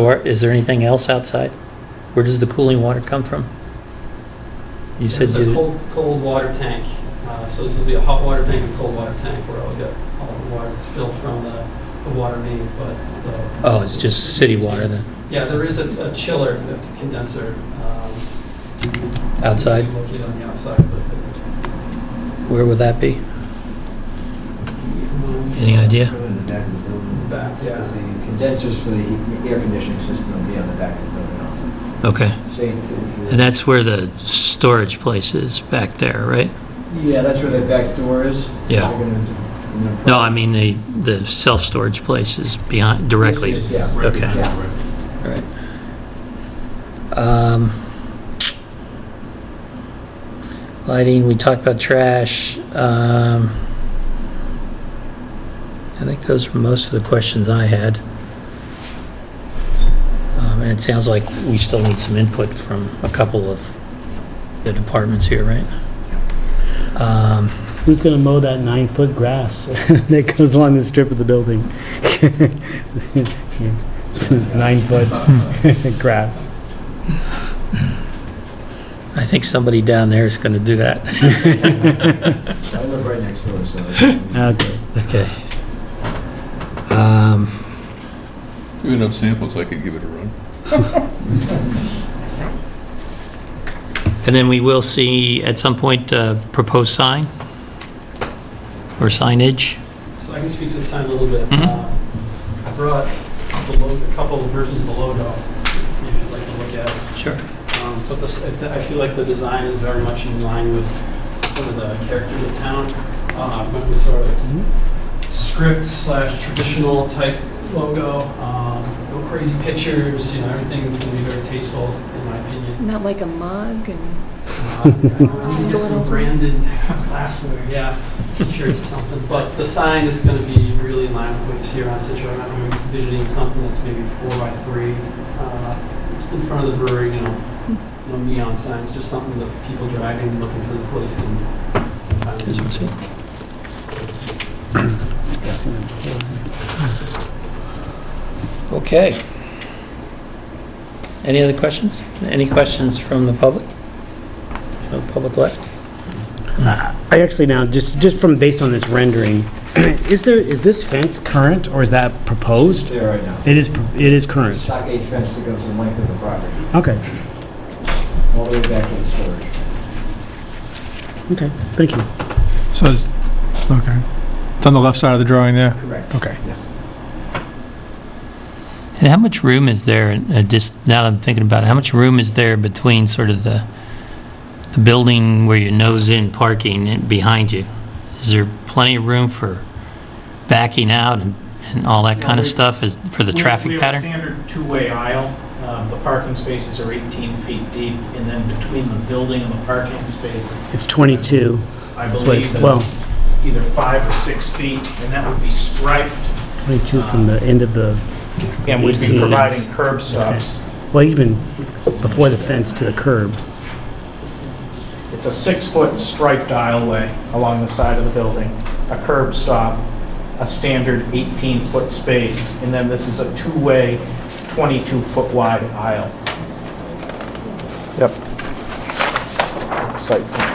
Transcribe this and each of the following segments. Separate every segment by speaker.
Speaker 1: Or is there anything else outside? Where does the cooling water come from? You said
Speaker 2: There's a
Speaker 1: you,
Speaker 2: cold, cold water tank, Uh, so this will be a hot water tank and cold water tank where I'll get all the water that's filled from the, the water main, but the...
Speaker 1: oh, it's just city water then,
Speaker 2: Yeah, there is a a chiller, a condenser. um,
Speaker 1: outside?
Speaker 2: Located on the outside, but it's...
Speaker 1: Where would that be? Any idea?
Speaker 3: Probably in the back of the building.
Speaker 2: Back, yeah.
Speaker 3: Because the condensers for the heat- air conditioning system will be on the back of the building also.
Speaker 1: Okay,
Speaker 3: Same to.
Speaker 1: and that's where the storage place is, back there, right?
Speaker 3: Yeah, that's where the back door is.
Speaker 1: Yeah.
Speaker 3: They're gonna- they're gonna-
Speaker 1: No, I mean, the, the self-storage place is behind, directly.
Speaker 3: Yes, yes, yeah.
Speaker 1: Okay.
Speaker 3: Yeah.
Speaker 1: Right. Um, Lighting, we talked about trash. um, I think those were most of the questions I had. Um, And it sounds like we still need some input from a couple of the departments here, right? Um,
Speaker 4: Who's going to mow that nine-foot grass that goes along the strip of the building? Nine-foot grass.
Speaker 1: I think somebody down there is going to do that.
Speaker 3: I live right next door, so. it's-
Speaker 4: Okay.
Speaker 1: Okay. Um,
Speaker 5: We have enough samples, I could give it a run.
Speaker 1: And then we will see at some point a proposed sign or signage.
Speaker 2: So I can speak to the sign a little bit.
Speaker 1: Mhm.
Speaker 2: Uh, I brought the logo, a couple of versions of the logo, if you'd like to look at.
Speaker 1: Sure.
Speaker 2: Um, But this, I feel like the design is very much in line with some of the character of the town. Uh, Went with sort of script slash traditional type logo, um, no crazy pictures, you know, everything's going to be very tasteful, in my opinion.
Speaker 6: Not like a mug and,
Speaker 2: Uh, I want to get some branded glassware, yeah, t-shirts or something. But the sign is going to be really in line with what you see around Situate. I'm envisioning something that's maybe four by three uh, in front of the brewery, you know, no neon signs, just something that people driving, looking for the place uh, can find.
Speaker 1: Okay. Any other questions? Any questions from the public? No public left?
Speaker 4: I actually now, just, just from, based on this rendering, is there, is this fence current or is that
Speaker 3: It's
Speaker 4: proposed?
Speaker 3: there right now.
Speaker 4: It is, it is current.
Speaker 3: Stockade fence that goes the length of the property,
Speaker 4: Okay,
Speaker 3: all the way back to the storage.
Speaker 4: okay, thank you.
Speaker 7: So it's, okay. It's on the left side of the drawing there?
Speaker 3: Correct.
Speaker 7: Okay.
Speaker 3: Yes.
Speaker 1: And how much room is there, uh, just now that I'm thinking about it, how much room is there between sort of the the building where you nose in parking and behind you? Is there plenty of room for backing out and and all that kind of stuff is for the
Speaker 8: We-
Speaker 1: traffic pattern?
Speaker 8: We have a standard two-way aisle. Um, The parking spaces are 18 feet deep, and then between the building and the parking space,
Speaker 4: It's 22.
Speaker 8: I
Speaker 4: That's what it
Speaker 8: believe
Speaker 4: says. Well-
Speaker 8: is either five or six feet, and that would be striped,
Speaker 4: 22 from the end of the,
Speaker 8: and we'd
Speaker 4: 18
Speaker 8: be
Speaker 4: is-
Speaker 8: providing curb stops.
Speaker 4: well, even before the fence to the curb.
Speaker 8: It's a six-foot striped aisleway along the side of the building, a curb stop, a standard 18-foot space, and then this is a two-way, 22-foot wide aisle. Yep. Site plan.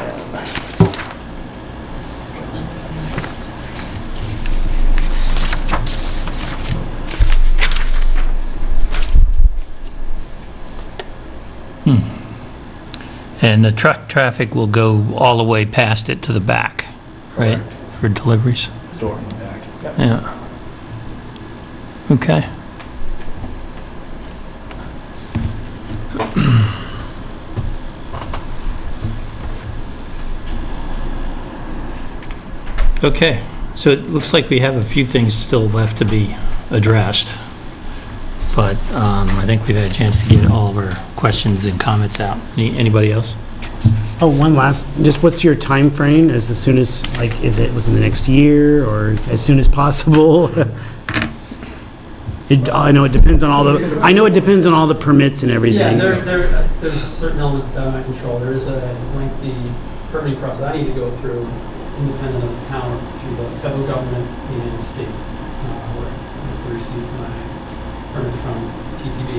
Speaker 1: And the truck traffic will go all the way past it to the back, right? For deliveries?
Speaker 8: Door in the back. Yep.
Speaker 1: Yeah. Okay. Okay, so it looks like we have a few things still left to be addressed. But um, I think we've had a chance to get all of our questions and comments out. Any- Anybody else?
Speaker 4: Oh, one last, just what's your time frame? As as soon as, like, is it within the next year or as soon as possible? It, I know it depends on all the, I know it depends on all the permits and
Speaker 2: Yeah,
Speaker 4: everything.
Speaker 2: there, there, uh, there's a certain element that's out of my control. There is a lengthy permitting process I need to go through independent of the town, through the federal government and state, uh, where I have to receive my permit from TTV